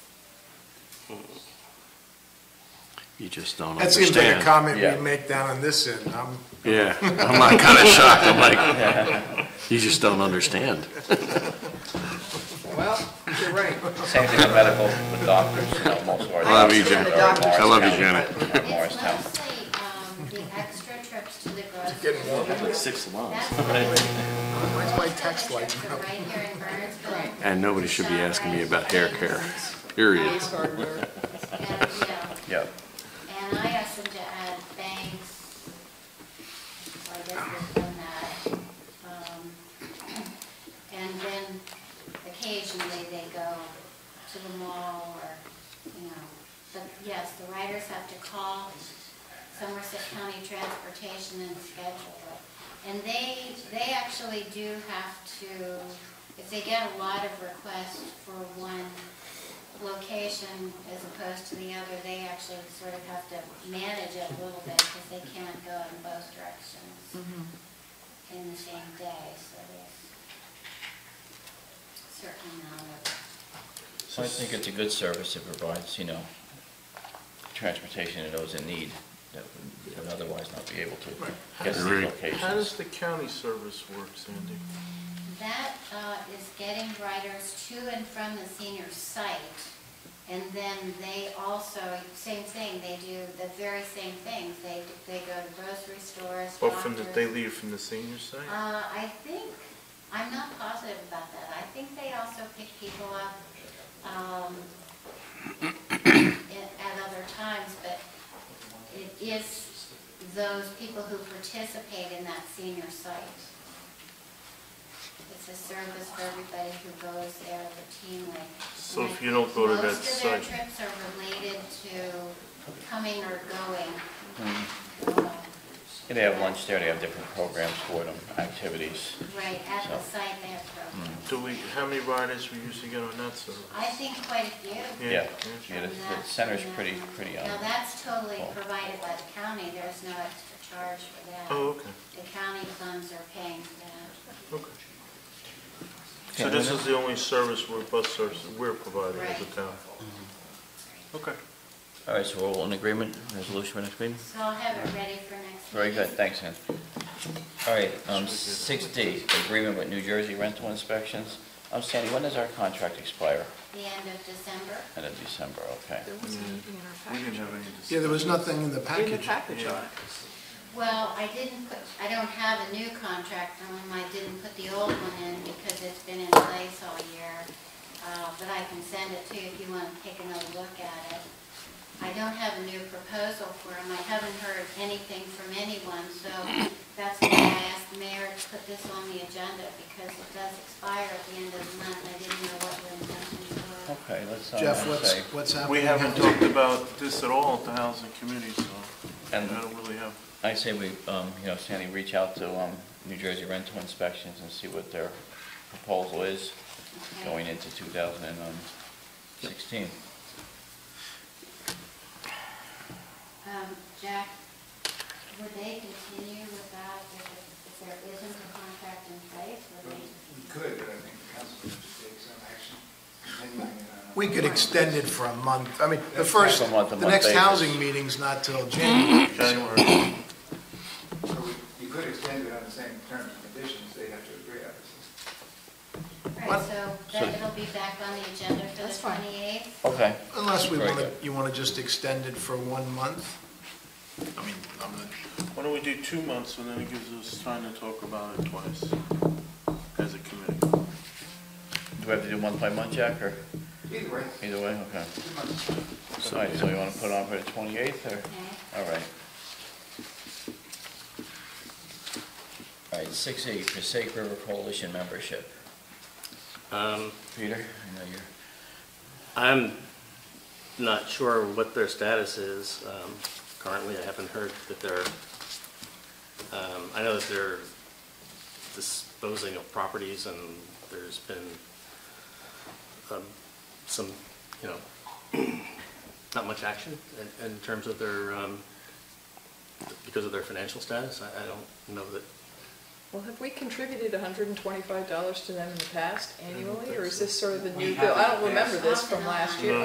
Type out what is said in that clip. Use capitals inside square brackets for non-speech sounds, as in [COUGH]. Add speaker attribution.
Speaker 1: You just don't
Speaker 2: That seems like a
Speaker 1: understand.
Speaker 2: comment
Speaker 3: Yeah.
Speaker 2: we make down on this end. I'm-
Speaker 1: Yeah, I'm not kind of shocked, I'm like,
Speaker 4: [LAUGHS]
Speaker 1: you just don't understand.
Speaker 5: Well, you're right.
Speaker 3: Same thing with medical, with doctors, you know, most of our.
Speaker 1: I love you,
Speaker 3: doctors
Speaker 1: Janet.
Speaker 3: are in
Speaker 1: I love you,
Speaker 3: Morristown, in
Speaker 6: It's
Speaker 3: Morristown.
Speaker 6: mostly, um, the extra trips to the grocery
Speaker 2: Getting
Speaker 6: store.
Speaker 2: warm.
Speaker 6: That's
Speaker 7: Like six months.
Speaker 2: Why's my text like?
Speaker 6: Right here in Burnsville.
Speaker 1: And nobody should be asking me about hair care, period.
Speaker 5: Hardware.
Speaker 6: And, you know,
Speaker 3: Yeah,
Speaker 6: And I asked them to add banks, I guess they've done that. Um, [CLEARS THROAT] And then occasionally they go to the mall or, you know, but yes, the riders have to call Somerset County Transportation and schedule it. And they, they actually do have to, if they get a lot of requests for one location as opposed to the other, they actually sort of have to manage it a little bit because they can't go in both directions in the same day, so there's certain amount of,
Speaker 3: so I think it's a good service, it provides, you know, transportation to those in need that would otherwise not be able to get to
Speaker 1: Agreed.
Speaker 3: these
Speaker 7: How
Speaker 3: locations.
Speaker 7: does the county service work, Sandy?
Speaker 6: that uh, is getting riders to and from the senior site. And then they also, same thing, they do the very same things. They, they go to grocery stores,
Speaker 7: Well, Oh, from the,
Speaker 6: doctors.
Speaker 7: they leave from the senior site?
Speaker 6: Uh, I think, I'm not positive about that. I think they also pick people up, um, at at other times, but it is those people who participate in that senior site. It's a service for everybody who goes there routinely.
Speaker 7: So if you don't go to that
Speaker 6: Most of their
Speaker 7: site-
Speaker 6: trips are related to coming or going. Um,
Speaker 3: And They have lunch there, they have different programs for them, activities.
Speaker 6: Right, at the
Speaker 3: So-
Speaker 6: site they have programs.
Speaker 7: Do we, how many riders we usually get on that service?
Speaker 6: I think quite a few.
Speaker 3: Yeah,
Speaker 7: yeah.
Speaker 3: yeah, the
Speaker 6: from
Speaker 3: the
Speaker 6: that-
Speaker 3: center's
Speaker 6: from
Speaker 3: pretty,
Speaker 6: that.
Speaker 3: pretty, um,
Speaker 6: Now, that's totally
Speaker 3: full.
Speaker 6: provided by the county, there's no extra charge for that.
Speaker 7: Oh, okay,
Speaker 6: The county funds are paying for that.
Speaker 7: okay. So this is the only service we're, bus service that we're providing as a town? Okay.
Speaker 3: all right, so we're all in agreement, resolution for next meeting?
Speaker 6: So I'll have it ready for next.
Speaker 3: Very good,
Speaker 6: meeting.
Speaker 3: thanks, Ann. All right, um, six D, agreement with New Jersey rental inspections. Um, Sandy, when does our contract expire?
Speaker 6: The end of December.
Speaker 3: End of December, okay.
Speaker 5: There wasn't anything in our
Speaker 7: We didn't
Speaker 5: package.
Speaker 7: have any
Speaker 2: Yeah, there was nothing in the
Speaker 5: In the
Speaker 2: package.
Speaker 5: package
Speaker 7: Yeah.
Speaker 5: on it.
Speaker 6: Well, I didn't put, I don't have a new contract on them, I didn't put the old one in because it's been in place all year. Uh, But I can send it to you if you want to take another look at it. I don't have a new proposal for them, I haven't heard anything from anyone, so that's why I asked the mayor to put this on the agenda because it does expire at the end of the month, I didn't know what your intentions were.
Speaker 3: Okay, let's, uh,
Speaker 2: Jeff,
Speaker 3: let's
Speaker 2: what's,
Speaker 3: say,
Speaker 2: what's happening?
Speaker 7: We haven't
Speaker 2: now?
Speaker 7: talked about this at all at the housing committee, so I
Speaker 3: and
Speaker 7: don't really have,
Speaker 3: I say we, um, you know, Sandy, reach out to, um, New Jersey rental inspections and see what their proposal is
Speaker 6: Okay.
Speaker 3: going into two thousand and um, sixteen.
Speaker 6: Um, Jack, would they continue without, if if there isn't a contract in place, would they?
Speaker 8: We could, but I think the council should take some action. depending on-
Speaker 2: We could extend it for a month. I mean, the first,
Speaker 3: From month to
Speaker 2: the
Speaker 3: month
Speaker 2: next
Speaker 3: basis.
Speaker 2: housing meeting's not till January.
Speaker 7: [COUGHS] January,
Speaker 8: So we- You could extend it on the same terms and conditions, they'd have to agree, obviously.
Speaker 6: All right, so then it'll be back on the agenda for
Speaker 5: That's
Speaker 6: the
Speaker 5: fine.
Speaker 6: twenty-eighth?
Speaker 3: Okay,
Speaker 2: Unless we
Speaker 3: Very
Speaker 2: want to,
Speaker 3: good.
Speaker 2: you want to just extend it for one month? I mean, I'm not.
Speaker 7: why don't we do two months, and then it gives us time to talk about it twice as a committee?
Speaker 3: do we have to do month by month, Jack, or
Speaker 8: Either way,
Speaker 3: either way, okay.
Speaker 8: two months.
Speaker 3: All right, so you wanna put it on for the twenty-eighth, or?
Speaker 6: Okay.
Speaker 3: All right. All right, six E, Passaic River Coalition membership.
Speaker 4: Um,
Speaker 3: Peter, I know you're,
Speaker 4: I'm not sure what their status is. Um, Currently, I haven't heard that they're, um, I know that they're disposing of properties and there's been um, some, you know, not much action in, in terms of their, um, because of their financial status. I, I don't know that
Speaker 5: Well, have we contributed hundred and twenty-five dollars to them in the past
Speaker 7: I don't
Speaker 5: annually,
Speaker 7: think
Speaker 5: or is
Speaker 7: so.
Speaker 5: this sort of the
Speaker 8: We
Speaker 5: new bill?
Speaker 8: haven't
Speaker 5: I
Speaker 8: in the
Speaker 5: don't remember
Speaker 8: past.
Speaker 5: this from last year.
Speaker 7: No.